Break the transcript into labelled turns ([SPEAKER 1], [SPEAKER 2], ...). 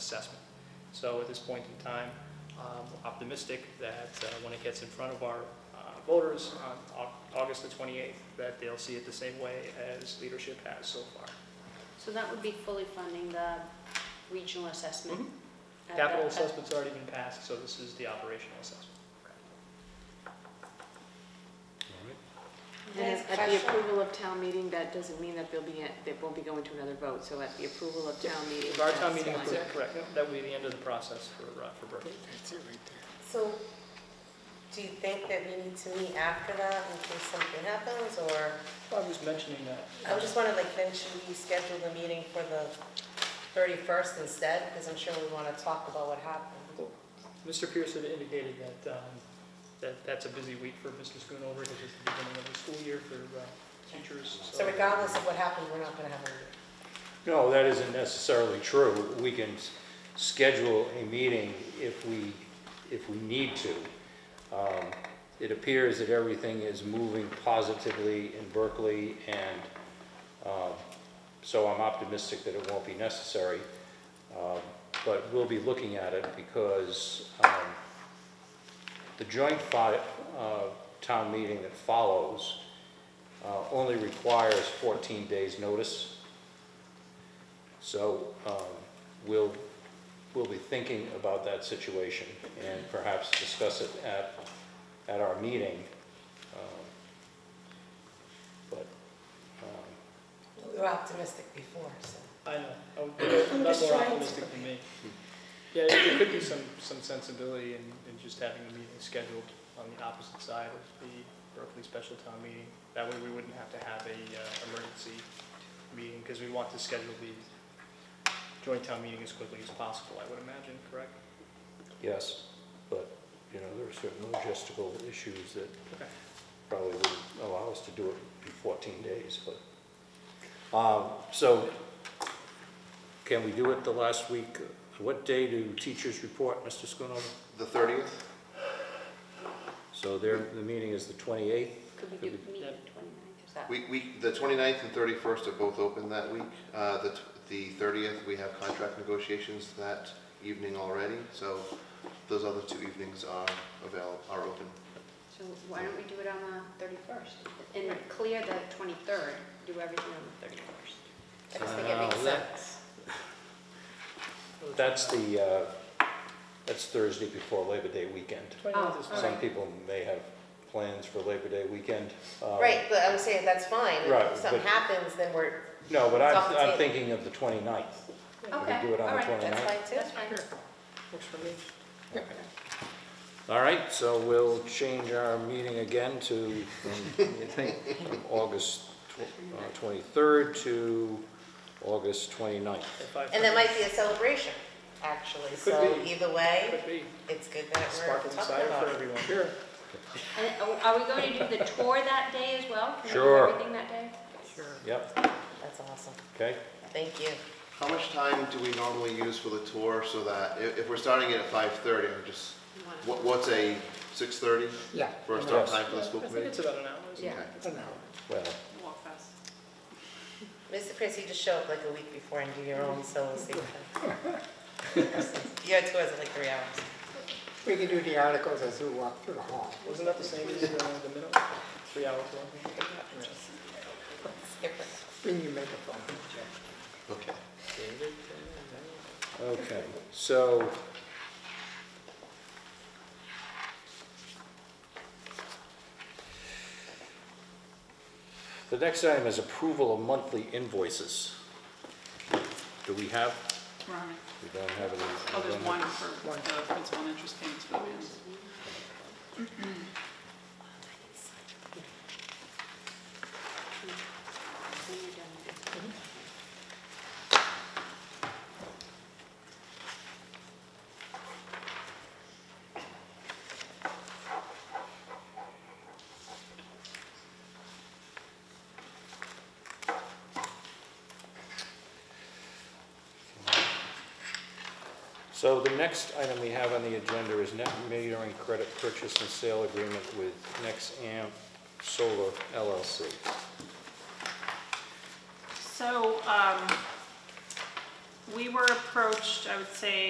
[SPEAKER 1] assessment. So at this point in time, um, we're optimistic that uh, when it gets in front of our uh, voters on Au- August the 28th, that they'll see it the same way as leadership has so far.
[SPEAKER 2] So that would be fully funding the regional assessment? Uh,
[SPEAKER 1] Mhm.
[SPEAKER 2] at the-
[SPEAKER 1] Capital
[SPEAKER 2] at-
[SPEAKER 1] assessment's already been passed, so this is the operational assessment.
[SPEAKER 3] All right.
[SPEAKER 4] And at the approval of town meeting, that doesn't mean that they'll be, that won't be going to another vote, so at the approval of town meeting.
[SPEAKER 1] If our town
[SPEAKER 4] that's
[SPEAKER 1] meeting
[SPEAKER 4] fine.
[SPEAKER 1] approved, correct, that would be the end of the process for, uh, for Berkeley.
[SPEAKER 5] So, do you think that we need to meet after that in case something happens, or,
[SPEAKER 1] I was mentioning that.
[SPEAKER 5] I just wondering, like, then should we schedule the meeting for the 31st instead? Because I'm sure we want to talk about what happened.
[SPEAKER 1] Mr. Pierce had indicated that, um, that that's a busy week for Mr. Schoonover because it's the beginning of the school year for uh, teachers.
[SPEAKER 5] So regardless of what happened, we're not going to have a meeting.
[SPEAKER 3] No, that isn't necessarily true. We can s- schedule a meeting if we, if we need to. Um, It appears that everything is moving positively in Berkeley, and um, so I'm optimistic that it won't be necessary. Um, But we'll be looking at it because um, the joint fi- uh, town meeting that follows uh, only requires 14 days' notice. So um, we'll, we'll be thinking about that situation and perhaps discuss it at, at our meeting. Um, But, um,
[SPEAKER 5] We were optimistic before, so.
[SPEAKER 1] I know, I would- that's
[SPEAKER 5] just
[SPEAKER 1] more
[SPEAKER 5] trying to-
[SPEAKER 1] optimistic than me. Yeah, there could be some, some sensibility in, in just having the meeting scheduled on the opposite side of the Berkeley special town meeting. That way we wouldn't have to have a uh, emergency meeting because we want to schedule the joint town meeting as quickly as possible, I would imagine, correct?
[SPEAKER 3] yes, but, you know, there are certain logistical issues that
[SPEAKER 1] Okay.
[SPEAKER 3] probably wouldn't allow us to do it in 14 days, but. um, So can we do it the last week? What day do teachers report, Mr. Schoonover?
[SPEAKER 6] The thirtieth?
[SPEAKER 3] So their, the meeting is the 28th?
[SPEAKER 2] Could we do meeting 29th? Is that-
[SPEAKER 6] We, we, the 29th and thirty-first are both open that week. Uh, the, t- the thirtieth, we have contract negotiations that evening already, so those other two evenings are avail, are open.
[SPEAKER 2] So why don't we do it on the 31st? And clear the 23rd, do everything on the 31st.
[SPEAKER 5] I just think it makes
[SPEAKER 3] Uh, that-
[SPEAKER 5] sense.
[SPEAKER 3] That's the, uh, that's Thursday before Labor Day weekend.
[SPEAKER 1] Twenty-ninth is
[SPEAKER 2] Oh, all
[SPEAKER 1] fine.
[SPEAKER 3] Some
[SPEAKER 2] right.
[SPEAKER 3] people may have plans for Labor Day weekend. Um,
[SPEAKER 5] Right, but I'm saying that's fine.
[SPEAKER 3] Right,
[SPEAKER 5] If something
[SPEAKER 3] but-
[SPEAKER 5] happens, then we're,
[SPEAKER 3] No, but
[SPEAKER 5] It's off
[SPEAKER 3] I'm,
[SPEAKER 5] the
[SPEAKER 3] I'm
[SPEAKER 5] table.
[SPEAKER 3] thinking of the 29th. We
[SPEAKER 2] Okay,
[SPEAKER 3] can do it
[SPEAKER 2] all
[SPEAKER 3] on the
[SPEAKER 2] right,
[SPEAKER 3] 29th.
[SPEAKER 5] that's fine too.
[SPEAKER 2] That's fine.
[SPEAKER 1] Works for me.
[SPEAKER 3] All right, so we'll change our meeting again to, from, I think, from August tw- uh, 23rd to August 29th.
[SPEAKER 1] At five
[SPEAKER 5] And that
[SPEAKER 1] thirty.
[SPEAKER 5] might be a celebration, actually.
[SPEAKER 1] Could
[SPEAKER 5] So
[SPEAKER 1] be.
[SPEAKER 5] either way,
[SPEAKER 1] Could be.
[SPEAKER 5] it's good that we're
[SPEAKER 1] Sparkling
[SPEAKER 5] talking
[SPEAKER 1] cider
[SPEAKER 5] about
[SPEAKER 1] for
[SPEAKER 5] it.
[SPEAKER 1] everyone. Sure.
[SPEAKER 2] And are- Are we going to do the tour that day as well? Can we do
[SPEAKER 3] Sure.
[SPEAKER 2] everything that day?
[SPEAKER 3] Yep,
[SPEAKER 5] That's awesome.
[SPEAKER 3] okay.
[SPEAKER 5] Thank you.
[SPEAKER 6] How much time do we normally use for the tour so that, if, if we're starting it at five-thirty, I'm just, what, what's a six-thirty?
[SPEAKER 7] Yeah.
[SPEAKER 6] For a start
[SPEAKER 3] Yes.
[SPEAKER 6] time for the school
[SPEAKER 1] I think it's
[SPEAKER 6] committee?
[SPEAKER 1] about an hour, isn't it?
[SPEAKER 2] Yeah.
[SPEAKER 6] Okay.
[SPEAKER 7] It's an hour.
[SPEAKER 3] Well,
[SPEAKER 5] Mr. Prince, you just show up like a week before and do your own solo station. Your tours are like three hours.
[SPEAKER 7] We can do the articles as we walk through the hall.
[SPEAKER 1] Wasn't that the same as uh, the middle? Three hours long?
[SPEAKER 5] Skip it.
[SPEAKER 7] Bring your microphone, Jeff.
[SPEAKER 6] Okay.
[SPEAKER 3] okay, so the next item is approval of monthly invoices. Do we have,
[SPEAKER 8] Right.
[SPEAKER 3] we don't have any.
[SPEAKER 8] Oh, there's
[SPEAKER 3] we don't have-
[SPEAKER 8] one for the principal and interest payments for the bands.
[SPEAKER 2] When you're done with it.
[SPEAKER 3] So the next item we have on the agenda is net metering credit purchase and sale agreement with Nexamp Solar LLC.
[SPEAKER 8] So, um, we were approached, I would say,